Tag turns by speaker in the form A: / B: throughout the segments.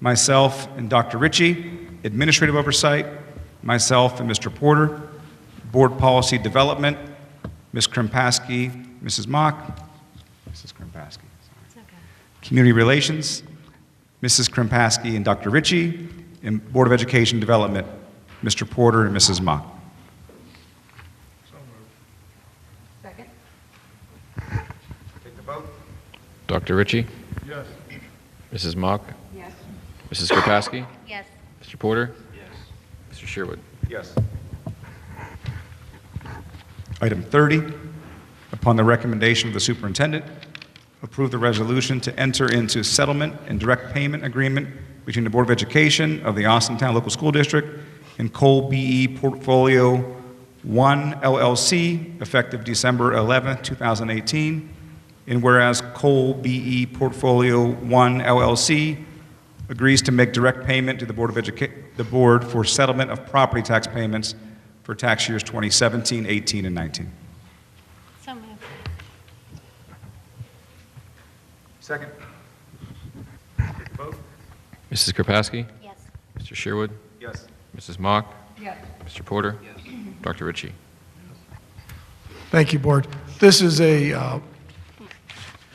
A: myself and Dr. Ritchie, administrative oversight, myself and Mr. Porter, board policy development, Ms. Krimpaski, Mrs. Mock, Mrs. Krimpaski, sorry. community relations, Mrs. Krimpaski and Dr. Ritchie, and board of education development, Mr. Porter and Mrs. Mock.
B: Second?
A: Take the vote.
C: Dr. Ritchie? Yes. Mrs. Mock?
B: Yes.
C: Mrs. Kropaski?
B: Yes.
C: Mr. Porter? Yes. Mr. Sherwood?
A: Yes. Item 30, upon the recommendation of the superintendent, approve the resolution to enter into settlement and direct payment agreement between the Board of Education of the Austintown Local School District and Cole BE Portfolio 1 LLC, effective December 11, 2018, and whereas Cole BE Portfolio 1 LLC agrees to make direct payment to the Board of Educa, the Board for settlement of property tax payments for tax years 2017, 18, and 19.
B: So moved.
A: Second. Vote?
C: Mrs. Kropaski?
B: Yes.
C: Mr. Sherwood?
A: Yes.
C: Mrs. Mock?
B: Yes.
C: Mr. Porter? Yes. Dr. Ritchie?
D: Thank you, Board. This is a, uh,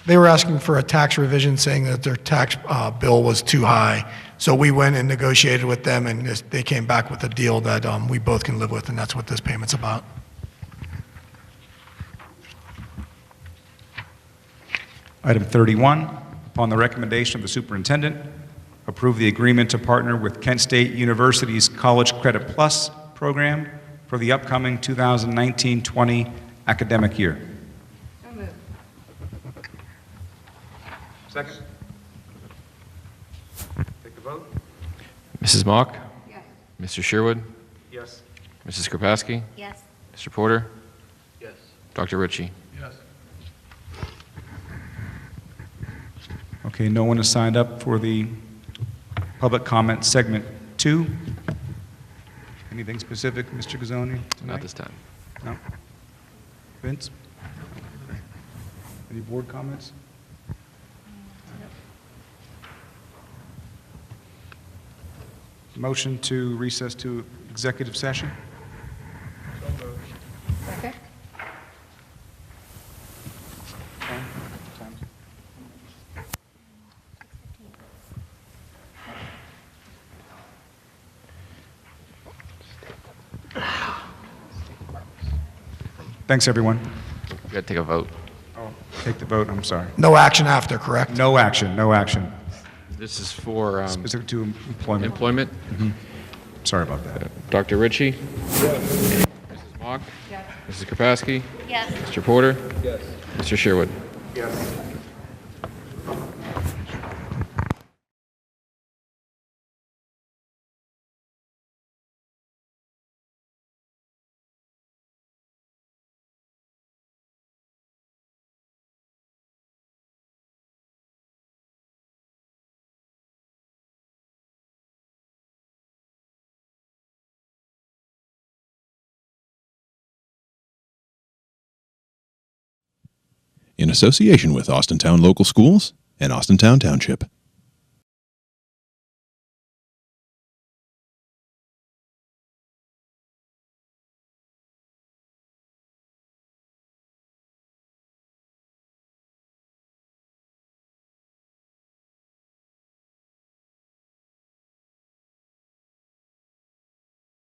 D: they were asking for a tax revision, saying that their tax uh, bill was too high. So we went and negotiated with them, and this- they came back with a deal that um, we both can live with, and that's what this payment's about.
A: Item 31, upon the recommendation of the superintendent, approve the agreement to partner with Kent State University's College Credit Plus program for the upcoming 2019-20 academic year.
B: So moved.
A: Second. Take the vote?
C: Mrs. Mock?
B: Yes.
C: Mr. Sherwood?
A: Yes.
C: Mrs. Kropaski?
B: Yes.
C: Mr. Porter? Yes. Dr. Ritchie?
A: Okay, no one has signed up for the public comment segment two. Anything specific, Mr. Gazoni?
C: Not
A: tonight?
C: this time.
A: No? Vince? Any board comments? Motion to recess to executive session?
B: Second?
A: Thanks, everyone.
C: We gotta take a vote.
A: Take the vote, I'm sorry.
D: No action after, correct?
A: No action, no action.
C: This is for um,
A: Specific to employment.
C: employment.
A: Sorry about that.
C: Dr. Ritchie? Mrs. Mock?
B: Yes.
C: Mrs. Kropaski?
B: Yes.
C: Mr. Porter? Yes. Mr. Sherwood?
E: in association with Austintown Local Schools and Austintown Township.